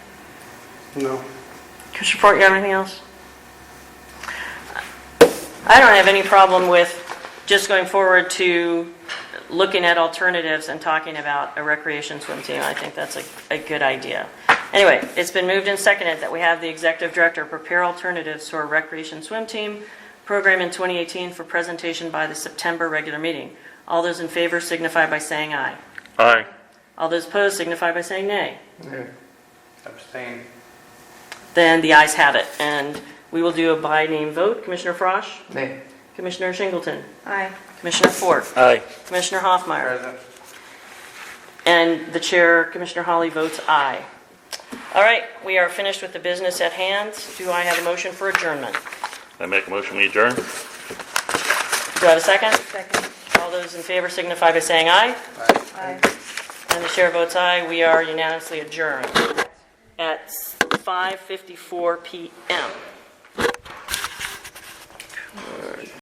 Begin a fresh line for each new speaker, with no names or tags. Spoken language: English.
No.
Commissioner Fort, you have anything else? I don't have any problem with just going forward to looking at alternatives and talking about a recreation swim team. I think that's a, a good idea. Anyway, it's been moved and seconded that we have the executive director prepare alternatives to our recreation swim team program in 2018 for presentation by the September regular meeting. All those in favor signify by saying aye.
Aye.
All those opposed signify by saying nay.
Abstain.
Then the ayes have it, and we will do a by name vote. Commissioner Frosch?
Nay.
Commissioner Shingleton?
Aye.
Commissioner Fort?
Aye.
Commissioner Hoffmeyer?
Present.
And the chair, Commissioner Holly, votes aye. All right, we are finished with the business at hand. Do I have a motion for adjournment?
I make a motion, we adjourn?
Do I have a second?
Second.
All those in favor signify by saying aye,
Aye.
and the chair votes aye. We are unanimously adjourned at 5:54 PM.